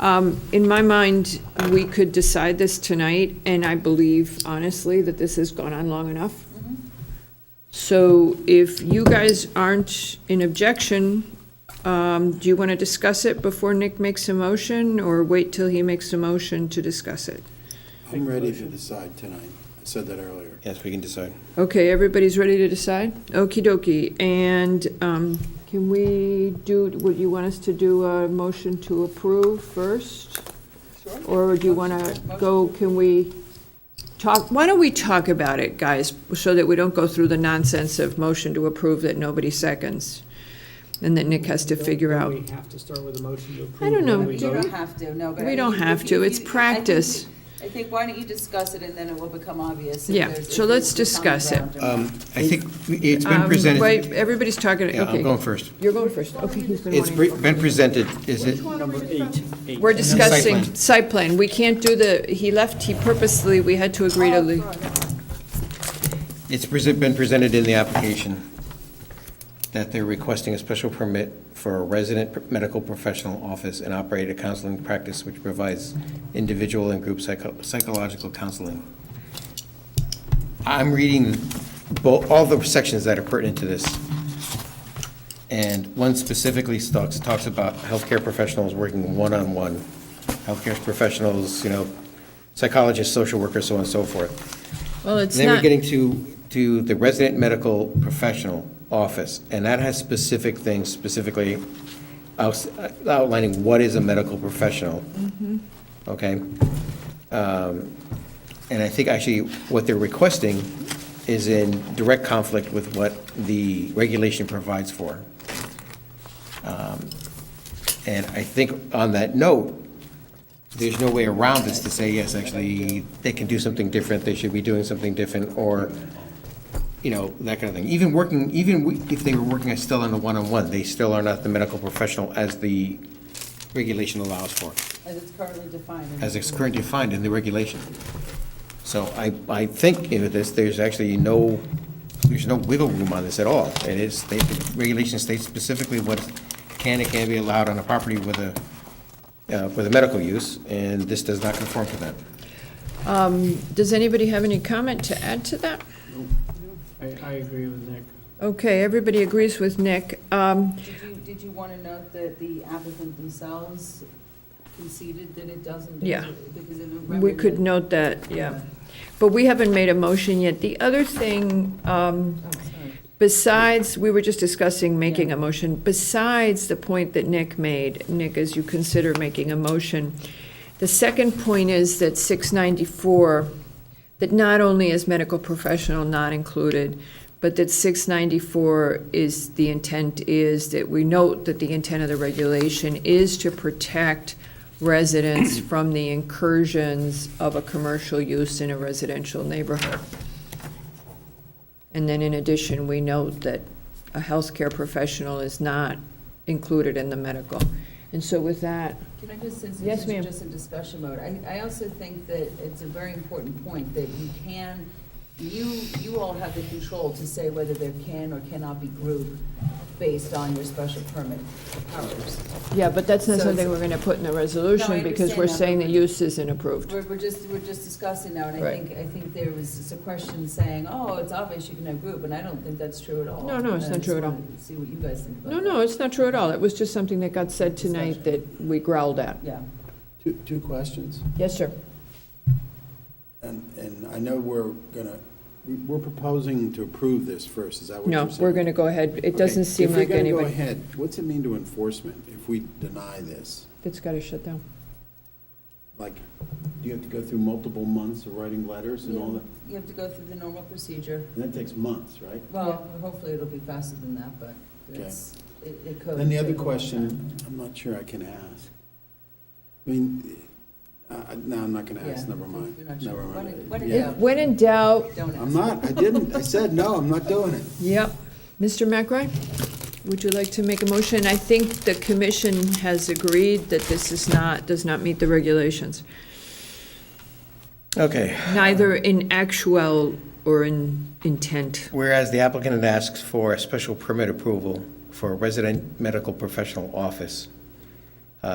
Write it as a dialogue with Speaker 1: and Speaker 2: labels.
Speaker 1: Um, In my mind, we could decide this tonight, and I believe honestly that this has gone on long enough. So if you guys aren't in objection, um, do you want to discuss it before Nick makes a motion, or wait till he makes a motion to discuss it?
Speaker 2: I'm ready to decide tonight. I said that earlier.
Speaker 3: Yes, we can decide.
Speaker 1: Okay, everybody's ready to decide? Okey dokey. And um, can we do, would you want us to do a motion to approve first? Or do you want to go, can we talk, why don't we talk about it, guys, so that we don't go through the nonsense of motion to approve that nobody seconds? And that Nick has to
Speaker 4: Don't-
Speaker 1: figure
Speaker 4: don't
Speaker 1: out.
Speaker 4: We have to start with a motion to approve.
Speaker 1: I don't
Speaker 4: and then
Speaker 1: know.
Speaker 4: we
Speaker 1: Do
Speaker 4: vote?
Speaker 1: you-
Speaker 5: You don't have to, no, but.
Speaker 1: We
Speaker 5: I
Speaker 1: don't
Speaker 5: think if
Speaker 1: have
Speaker 5: you-
Speaker 1: to.
Speaker 5: if
Speaker 1: It's
Speaker 5: you- I think
Speaker 1: practice.
Speaker 5: you- I think, why don't you discuss it and then it will become obvious. if
Speaker 1: Yeah,
Speaker 5: there's- if
Speaker 1: so let's
Speaker 5: there's common
Speaker 1: discuss it.
Speaker 5: ground or not.
Speaker 3: Um, I think it's been
Speaker 1: Um,
Speaker 3: presented.
Speaker 1: Wait, everybody's talking,
Speaker 3: Yeah, I'm
Speaker 1: okay.
Speaker 3: going first.
Speaker 1: You're going first. Okay, he's been
Speaker 3: It's
Speaker 1: wanting-
Speaker 3: pre- been presented, is it?
Speaker 4: Number eight. eight.
Speaker 1: We're
Speaker 3: then site
Speaker 1: discussing
Speaker 3: plan.
Speaker 1: site plan. We can't do the, he left, he purposely, we had to agree to leave.
Speaker 3: It's presen- been presented in the application that they're requesting a special permit for a resident pr- medical professional office and operate a counseling practice which provides individual and group psycho- psychological counseling. I'm reading bo- all the sections that are pertinent to this. And one specifically talks, talks about healthcare professionals working one-on-one, healthcare professionals, you know, psychologists, social workers, so on and so forth.
Speaker 1: Well, it's
Speaker 3: Then we're
Speaker 1: not,
Speaker 3: getting to, to the resident medical professional office, and that has specific things, specifically outs- outlining what is a medical professional.
Speaker 1: Mm-hmm.
Speaker 3: Okay? Um, And I think actually what they're requesting is in direct conflict with what the regulation provides for. Um, And I think on that note, there's no way around this to say, yes, actually, they can do something different, they should be doing something different, or, you know, that kind of thing. Even working, even we- if they were working still on a one-on-one, they still are not the medical professional as the regulation allows for,
Speaker 5: As it's currently defined. in
Speaker 3: as
Speaker 5: the
Speaker 3: it's currently defined in the regulation. So I, I think in this, there's actually no, there's no wiggle room on this at all. It is, they- the regulation states specifically what can and can't be allowed on a property with a, uh, with a medical use, and this does not conform to that.
Speaker 1: um, does anybody have any comment to add to that?
Speaker 4: I, I agree with Nick.
Speaker 1: Okay, everybody agrees with Nick. Um,
Speaker 5: Did you, did you want to note that the applicant themselves conceded that it doesn't? because
Speaker 1: Yeah.
Speaker 5: it- Because of. a
Speaker 1: We could
Speaker 5: remedy?
Speaker 1: note that, yeah. But we haven't made a motion yet. The other thing, um,
Speaker 5: Oh, sorry.
Speaker 1: Besides, we were just discussing making
Speaker 5: Yeah.
Speaker 1: a motion, besides the point that Nick made, Nick, as you consider making a motion, the second point is that 694, that not only is medical professional not included, but that 694 is, the intent is that we note that the intent of the regulation is to protect residents from the incursions of a commercial use in a residential neighborhood. And then in addition, we note that a healthcare professional is not included in the medical. And so with that,
Speaker 5: Can I just, since
Speaker 1: Yes,
Speaker 5: this
Speaker 1: ma'am.
Speaker 5: is just in discussion mode, I, I also think that it's a very important point that you can, you, you all have the control to say whether there can or cannot be group based on your special permit powers.
Speaker 1: yeah, but that's not
Speaker 5: So
Speaker 1: something we're
Speaker 5: it's-
Speaker 1: gonna put in the resolution because
Speaker 5: understand
Speaker 1: we're
Speaker 5: that,
Speaker 1: saying the
Speaker 5: but-
Speaker 1: use isn't approved.
Speaker 5: We're, we're just, we're just discussing now, and I
Speaker 1: Right.
Speaker 5: think, I think there was just a question saying, oh, it's obvious you can have group, and I don't think that's true at all.
Speaker 1: No, no, it's
Speaker 5: And I
Speaker 1: not true
Speaker 5: just
Speaker 1: at all.
Speaker 5: wanted to See what you guys think about
Speaker 1: No,
Speaker 5: that.
Speaker 1: no, it's not true at all. It was just something that got said tonight that we growled at.
Speaker 5: Yeah.
Speaker 2: Two, two questions,
Speaker 1: Yes, sir.
Speaker 2: and, and I know we're gonna, we- we're proposing to approve this first, is that what you're
Speaker 1: No,
Speaker 2: saying?
Speaker 1: we're gonna go ahead. It doesn't
Speaker 2: Okay.
Speaker 1: seem like
Speaker 2: If we're gonna go
Speaker 1: anybody,
Speaker 2: ahead, what's it mean to enforcement if we deny this?
Speaker 1: it's gotta shut down.
Speaker 2: Like, do you have to go through multiple months of writing letters and all
Speaker 5: Yeah.
Speaker 2: that?
Speaker 5: You have to go through the normal procedure.
Speaker 2: And that takes months, right?
Speaker 5: Well, hopefully it'll be faster than that, but it's, it it could.
Speaker 2: Then the other
Speaker 5: take a long time.
Speaker 2: question, I'm not sure I can ask. I mean, uh, uh, no, I'm not gonna ask,
Speaker 5: Yeah,
Speaker 2: never mind,
Speaker 5: you're not sure.
Speaker 2: never
Speaker 5: Why
Speaker 2: mind.
Speaker 5: don't- why don't
Speaker 2: Yeah.
Speaker 5: you-
Speaker 1: When in doubt,
Speaker 5: Don't ask.
Speaker 2: I'm not, I didn't, I said, no, I'm not doing it.
Speaker 1: Yep. Mr. McRae, would you like to make a motion? I think the commission has agreed that this is not, does not meet the regulations,
Speaker 3: Okay.
Speaker 1: neither in actual or in intent.
Speaker 3: Whereas the applicant asks for a special permit approval for a resident medical professional office